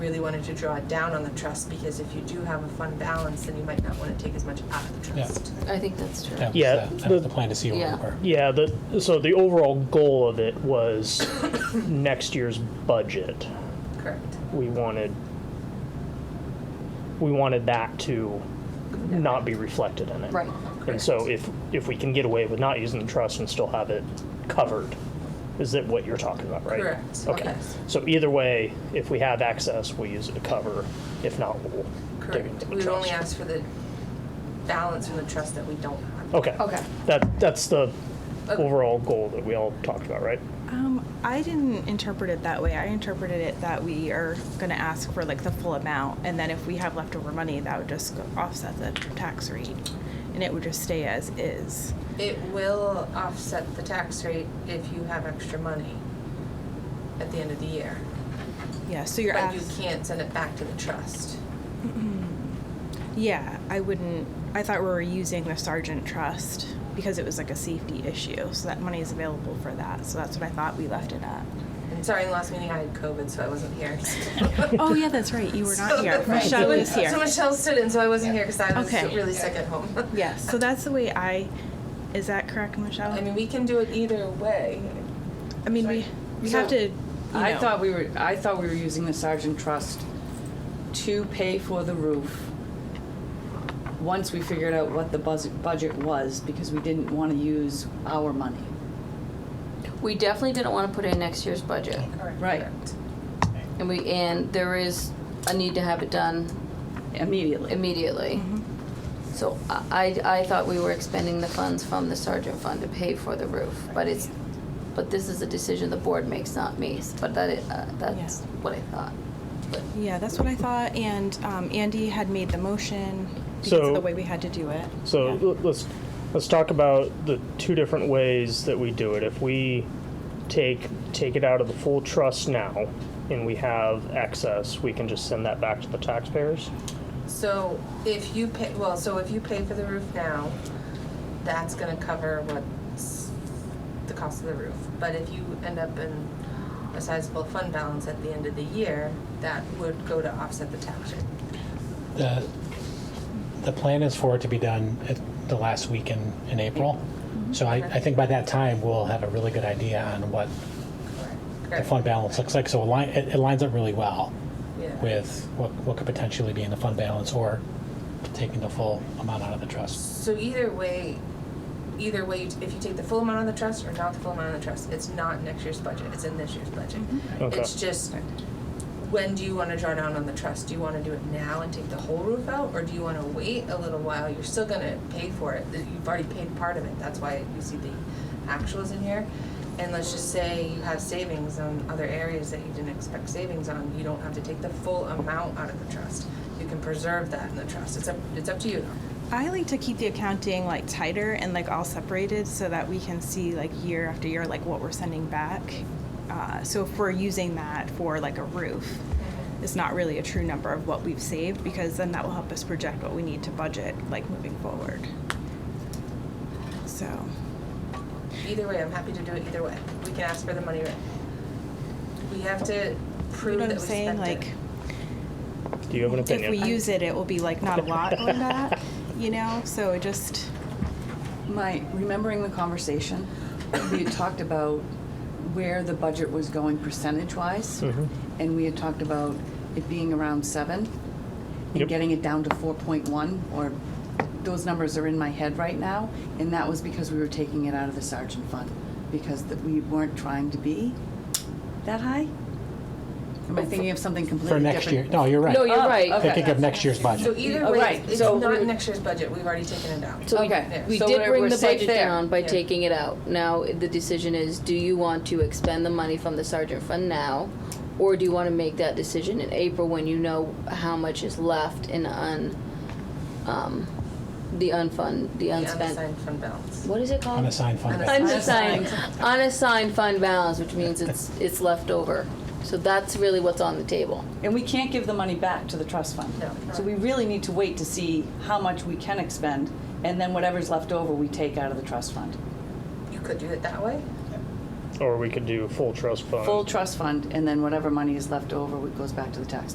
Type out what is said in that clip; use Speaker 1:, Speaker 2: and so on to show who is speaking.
Speaker 1: really wanted to draw down on the trust because if you do have a fund balance, then you might not want to take as much out of the
Speaker 2: Yeah.
Speaker 1: trust.
Speaker 3: I think that's true.
Speaker 2: That was
Speaker 4: Yeah,
Speaker 2: the, that was
Speaker 4: the-
Speaker 2: the plan to see where
Speaker 3: Yeah.
Speaker 2: we were.
Speaker 4: Yeah, the, so the overall goal of it was next year's budget.
Speaker 1: Correct.
Speaker 4: We wanted, we wanted that to not be reflected in it.
Speaker 3: Right.
Speaker 4: And so if, if we can get away with not using the trust and still have it covered, is that what you're talking about, right?
Speaker 1: Correct,
Speaker 4: Okay.
Speaker 1: yes.
Speaker 4: So either way, if we have access, we'll use it to cover. If not, we'll dig into
Speaker 1: Correct.
Speaker 4: the
Speaker 1: We would only
Speaker 4: trust.
Speaker 1: ask for the balance from the trust that we don't have.
Speaker 4: Okay.
Speaker 3: Okay.
Speaker 4: That, that's the
Speaker 1: Okay.
Speaker 4: overall goal that we all talked about, right?
Speaker 5: Um, I didn't interpret it that way. I interpreted it that we are gonna ask for like the full amount, and then if we have leftover money, that would just go- offset the tax rate, and it would just stay as is.
Speaker 1: It will offset the tax rate if you have extra money at the end of the year.
Speaker 5: Yeah, so you're
Speaker 1: But
Speaker 5: asked.
Speaker 1: you can't send it back to the trust.
Speaker 5: Yeah, I wouldn't, I thought we were using the sergeant trust because it was like a safety issue, so that money is available for that, so that's what I thought we left it at.
Speaker 1: And sorry, in the last meeting I had COVID, so I wasn't here.
Speaker 5: Oh, yeah, that's right, you were not here, Michelle
Speaker 1: So-
Speaker 5: was
Speaker 1: So
Speaker 5: here.
Speaker 1: Michelle stood in, so I wasn't here because I was
Speaker 5: Okay.
Speaker 1: really sick at home.
Speaker 5: Yes, so that's the way I, is that correct, Michelle?
Speaker 1: I mean, we can do it either way.
Speaker 5: I mean, we, we have
Speaker 6: So,
Speaker 5: to, you
Speaker 6: I
Speaker 5: know.
Speaker 6: thought we were, I thought we were using the sergeant trust to pay for the roof. Once we figured out what the buzz- budget was, because we didn't want to use our money.
Speaker 3: We definitely didn't want to put in next year's budget.
Speaker 6: Right.
Speaker 3: And we, and there is a need to have it done
Speaker 6: Immediately.
Speaker 3: immediately. So I, I I thought we were expending the funds from the sergeant fund to pay for the roof, but it's, but this is a decision the board makes, not me. But that, i- uh, that's
Speaker 5: Yeah.
Speaker 3: what I thought. But
Speaker 5: Yeah, that's what I thought, and, um, Andy had made the motion because
Speaker 4: So-
Speaker 5: of the way we had to do it.
Speaker 4: So l- let's let's talk about the two different ways that we do it. If we take take it out of the full trust now and we have excess, we can just send that back to the taxpayers.
Speaker 1: So if you pay, well, so if you pay for the roof now, that's gonna cover what's the cost of the roof. But if you end up in a sizable fund balance at the end of the year, that would go to offset the tax rate.
Speaker 2: The, the plan is for it to be done at the last week in, in April.
Speaker 3: Mm-hmm.
Speaker 2: So I, I think by that time, we'll have a really good idea on what the
Speaker 1: Correct.
Speaker 2: fund balance looks like. So it li- it, it lines up really well
Speaker 1: Yeah.
Speaker 2: with what, what could potentially be in the fund balance or taking the full amount out of the trust.
Speaker 1: So either way, either way, if you take the full amount on the trust or not the full amount on the trust, it's not next year's budget, it's in this year's budget.
Speaker 4: Okay.
Speaker 1: It's just, when do you wanna draw down on the trust? Do you wanna do it now and take the whole roof out, or do you wanna wait a little while? You're still gonna pay for it, that you've already paid part of it, that's why you see the actuals in here. And let's just say you have savings on other areas that you didn't expect savings on, you don't have to take the full amount out of the trust. You can preserve that in the trust, it's up, it's up to you though.
Speaker 5: I like to keep the accounting like tighter and like all separated so that we can see like year after year like what we're sending back. Uh, so if we're using that for like a roof, it's not really a true number of what we've saved because then that will help us project what we need to budget like moving forward. So,
Speaker 1: Either way, I'm happy to do it either way. We can ask for the money right. We have to
Speaker 5: you
Speaker 1: prove
Speaker 5: know
Speaker 1: that
Speaker 5: what
Speaker 1: we
Speaker 5: I'm saying?
Speaker 1: spent
Speaker 5: Like,
Speaker 1: it.
Speaker 4: Do you have an
Speaker 5: if
Speaker 4: opinion?
Speaker 5: we use it, it will be like not a lot on that, you know? So it just,
Speaker 6: My, remembering the conversation, we had talked about where the budget was going percentage-wise.
Speaker 2: Mm-hmm.
Speaker 6: And we had talked about it being around seven
Speaker 4: Yep.
Speaker 6: and getting it down to four point one, or those numbers are in my head right now. And that was because we were taking it out of the sergeant fund, because that we weren't trying to be that high? Am I thinking of something
Speaker 2: For
Speaker 6: completely different?
Speaker 2: next year, no, you're right.
Speaker 3: No, you're
Speaker 6: Oh,
Speaker 3: right.
Speaker 6: okay.
Speaker 2: Thinking of next year's
Speaker 1: So
Speaker 2: budget.
Speaker 1: either
Speaker 6: Oh,
Speaker 1: way,
Speaker 6: right.
Speaker 1: it's
Speaker 3: So
Speaker 1: not
Speaker 3: we-
Speaker 1: next year's budget, we've already taken it out.
Speaker 3: So we-
Speaker 6: Okay.
Speaker 3: we
Speaker 6: So
Speaker 3: did
Speaker 6: we're-
Speaker 3: bring
Speaker 6: we're
Speaker 3: the
Speaker 6: safe
Speaker 3: budget
Speaker 6: there.
Speaker 3: down by
Speaker 1: Yeah.
Speaker 3: taking it out. Now, the decision is, do you want to expend the money from the sergeant fund now? Or do you want to make that decision in April when you know how much is left in un, um, the unfund, the
Speaker 1: The
Speaker 3: unspent?
Speaker 1: unassigned fund balance.
Speaker 3: What is it called?
Speaker 2: Unassigned fund
Speaker 1: Unassigned.
Speaker 2: balance.
Speaker 3: Unassigned, unassigned fund balance, which means it's, it's left over. So that's really what's on the table.
Speaker 6: And we can't give the money back to the trust fund.
Speaker 1: No.
Speaker 6: So we really need to wait to see how much we can expend, and then whatever's left over, we take out of the trust fund.
Speaker 1: You could do it that way.
Speaker 4: or we could do full trust fund.
Speaker 6: Full trust fund, and then whatever money is left over, it goes back to the tax